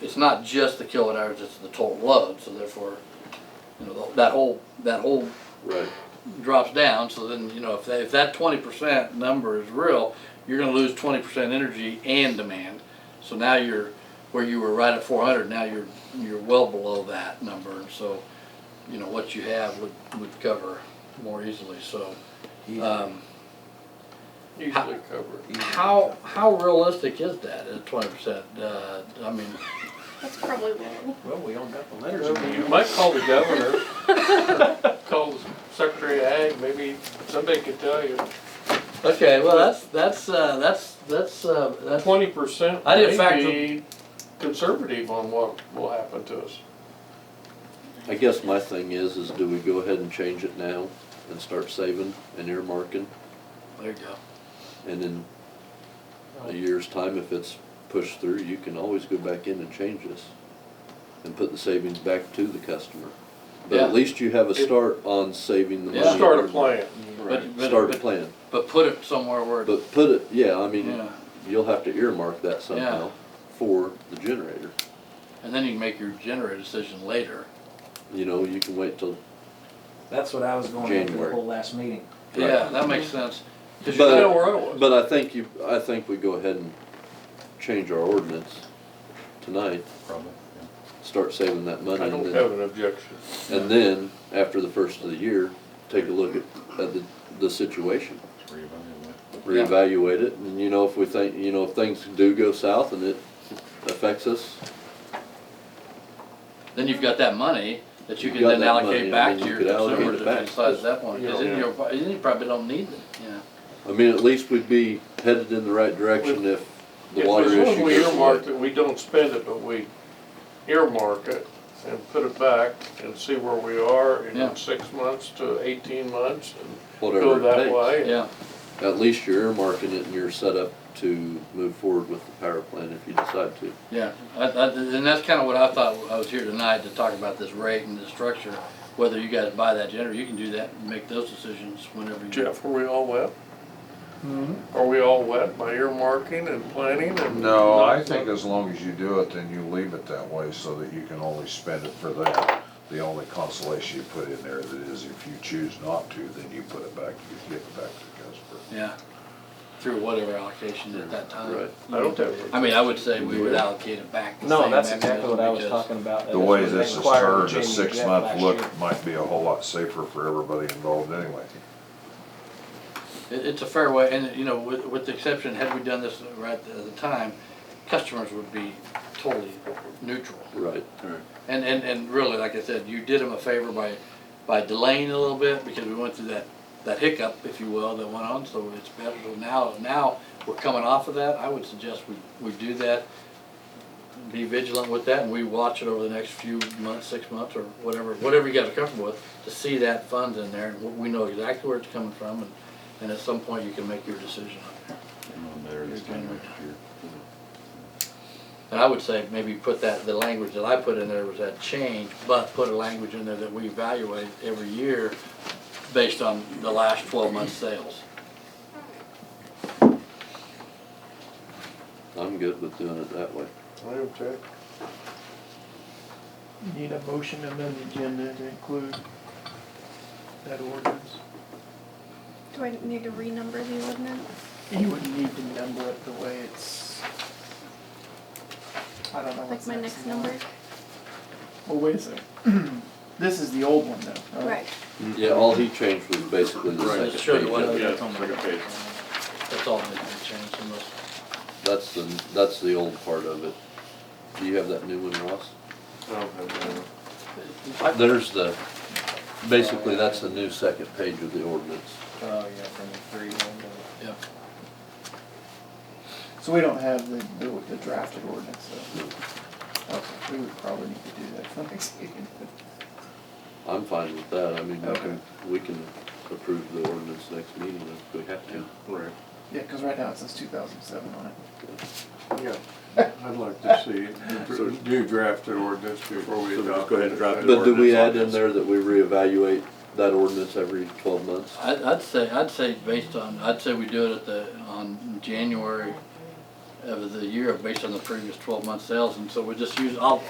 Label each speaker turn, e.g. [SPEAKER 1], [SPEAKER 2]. [SPEAKER 1] it's not just the kilowatt hours, it's the total load, so therefore, you know, that whole, that whole
[SPEAKER 2] Right,
[SPEAKER 1] drops down, so then, you know, if that, if that twenty percent number is real, you're gonna lose twenty percent energy and demand. So now you're, where you were right at four hundred, now you're, you're well below that number, and so, you know, what you have would, would cover more easily, so. Um,
[SPEAKER 2] usually covered.
[SPEAKER 1] how, how realistic is that, at twenty percent, uh, I mean,
[SPEAKER 3] That's probably low.
[SPEAKER 4] Well, we all got the letters in
[SPEAKER 2] You
[SPEAKER 4] there.
[SPEAKER 2] might call the governor, call the Secretary of Ag, maybe somebody could tell you.
[SPEAKER 1] okay, well, that's, that's, uh, that's, that's, uh, that's.
[SPEAKER 2] Twenty percent
[SPEAKER 1] I didn't factor-
[SPEAKER 2] may be conservative on what will happen to us.
[SPEAKER 5] I guess my thing is, is do we go ahead and change it now and start saving and earmarking?
[SPEAKER 1] There you go.
[SPEAKER 5] And in a year's time, if it's pushed through, you can always go back in and change this and put the savings back to the customer. But
[SPEAKER 1] Yeah.
[SPEAKER 5] at least you have a start on saving the
[SPEAKER 1] Yeah.
[SPEAKER 5] money.
[SPEAKER 1] We'll
[SPEAKER 2] Start a plan.
[SPEAKER 1] But- but-
[SPEAKER 5] Start a
[SPEAKER 1] but-
[SPEAKER 5] plan.
[SPEAKER 1] But put it somewhere where, it-
[SPEAKER 5] But put it, yeah, I mean,
[SPEAKER 1] yeah.
[SPEAKER 5] you'll have to earmark that somehow for the generator.
[SPEAKER 1] And then you can make your generator decision later.
[SPEAKER 5] You know, you can wait till,
[SPEAKER 4] That's what I was going after the
[SPEAKER 5] January.
[SPEAKER 4] whole last meeting.
[SPEAKER 5] Right.
[SPEAKER 1] Yeah, that makes sense. 'Cause you're
[SPEAKER 5] But-
[SPEAKER 1] still where I was.
[SPEAKER 5] but I think you, I think we go ahead and change our ordinance tonight.
[SPEAKER 6] Probably, yeah.
[SPEAKER 5] Start saving that money.
[SPEAKER 2] I
[SPEAKER 5] and
[SPEAKER 2] don't
[SPEAKER 5] then-
[SPEAKER 2] have an objection.
[SPEAKER 5] And then, after the first of the year, take a look at, at the, the situation,
[SPEAKER 6] Reevaluate.
[SPEAKER 5] reevaluate it, and you know, if we think, you know, if things do go south and it affects us,
[SPEAKER 1] Then you've got that money that you
[SPEAKER 5] You've
[SPEAKER 1] can
[SPEAKER 5] got
[SPEAKER 1] then
[SPEAKER 5] that
[SPEAKER 1] allocate
[SPEAKER 5] money,
[SPEAKER 1] back
[SPEAKER 5] and
[SPEAKER 1] to
[SPEAKER 5] you
[SPEAKER 1] your
[SPEAKER 5] could allocate
[SPEAKER 1] consumers
[SPEAKER 5] it
[SPEAKER 1] if
[SPEAKER 5] back.
[SPEAKER 1] you decide at that point. Cause
[SPEAKER 2] Yeah.
[SPEAKER 1] then you're, then you probably don't need it, yeah.
[SPEAKER 5] I mean, at least we'd be headed in the right direction if the water
[SPEAKER 2] If
[SPEAKER 5] issue
[SPEAKER 2] we
[SPEAKER 5] goes
[SPEAKER 2] earmark
[SPEAKER 5] away.
[SPEAKER 2] that we don't spend it, but we earmark it and put it back and see where we are
[SPEAKER 1] Yeah.
[SPEAKER 2] in six months to eighteen months and go
[SPEAKER 5] Whatever
[SPEAKER 2] that
[SPEAKER 5] it
[SPEAKER 2] way.
[SPEAKER 1] Yeah,
[SPEAKER 5] takes, at least you're earmarking it and you're set up to move forward with the power plant if you decide to.
[SPEAKER 1] yeah. I, I, and that's kinda what I thought, I was here tonight to talk about this rate and the structure. Whether you guys buy that generator, you can do that, and make those decisions whenever you.
[SPEAKER 2] Jeff, are we all wet? Are we all wet by earmarking and planning and?
[SPEAKER 6] No, I
[SPEAKER 2] not-
[SPEAKER 6] think as long as you do it, then you leave it that way so that you can only spend it for that. The only consolation you put in there that is if you choose not to, then you put it back, you give it back to the customer.
[SPEAKER 1] Yeah. Through whatever allocation at that time.
[SPEAKER 5] Right.
[SPEAKER 2] I don't have.
[SPEAKER 1] I mean, I would say we would allocate it back. the
[SPEAKER 4] No,
[SPEAKER 1] same
[SPEAKER 4] that's exactly
[SPEAKER 1] mechanism
[SPEAKER 4] what I was
[SPEAKER 1] because-
[SPEAKER 4] talking about.
[SPEAKER 6] The way this is turned, a six-month look might be a whole lot safer for everybody involved anyway.
[SPEAKER 1] It, it's a fair way, and, you know, with, with the exception, had we done this right at the time, customers would be totally neutral.
[SPEAKER 5] Right.
[SPEAKER 1] And, and, and really, like I said, you did them a favor by, by delaying a little bit, because we went through that, that hiccup, if you will, that went on, so it's better, so now, now we're coming off of that, I would suggest we, we do that. Be vigilant with that, and we watch it over the next few months, six months, or whatever, whatever you guys are comfortable with, to see that funds in there, and we- we know exactly where it's coming from, and, and at some point, you can make your decision on there.
[SPEAKER 6] There this time next year.
[SPEAKER 1] And I would say maybe put that, the language that I put in there was that change, but put a language in there that we evaluate every year based on the last twelve months' sales.
[SPEAKER 5] I'm good with doing it that way.
[SPEAKER 2] I am too.
[SPEAKER 7] Need a motion to amend the agenda to include that ordinance?
[SPEAKER 3] Do I need to renumber the ordinance?
[SPEAKER 7] You would need to number it the way it's, I don't know
[SPEAKER 3] Like
[SPEAKER 7] what's next.
[SPEAKER 3] my next number?
[SPEAKER 7] Well, wait a second. This is the old one though, right?
[SPEAKER 3] Right.
[SPEAKER 5] Yeah, all he changed was basically the
[SPEAKER 1] Right.
[SPEAKER 5] second
[SPEAKER 1] Show the
[SPEAKER 5] page
[SPEAKER 1] one-
[SPEAKER 5] of it.
[SPEAKER 1] Yeah,
[SPEAKER 2] second page.
[SPEAKER 1] That's all that needs to change unless,
[SPEAKER 5] That's the, that's the old part of it. Do you have that new one, Ross?
[SPEAKER 2] I don't have that.
[SPEAKER 5] There's the, basically, that's the new second page of the ordinance.
[SPEAKER 4] Oh, yeah, from the three one
[SPEAKER 1] uh, yeah.
[SPEAKER 7] So we don't have the, the the drafted ordinance though. Okay, we would probably need to do that for next meeting.
[SPEAKER 5] I'm fine with that, I mean, we
[SPEAKER 7] Okay.
[SPEAKER 5] can, we can approve the ordinance next meeting if we have to.
[SPEAKER 2] Right,
[SPEAKER 7] Yeah, cause right now it says two thousand seven on it.
[SPEAKER 2] yeah. I'd like to see, do drafted ordinance before we adopt. Go ahead and draft
[SPEAKER 5] But do we add in there that we reevaluate that ordinance every twelve months?
[SPEAKER 1] I, I'd say, I'd say based on, I'd say we do it at the, on January of the year based on the previous twelve month sales, and so we just use, I'll,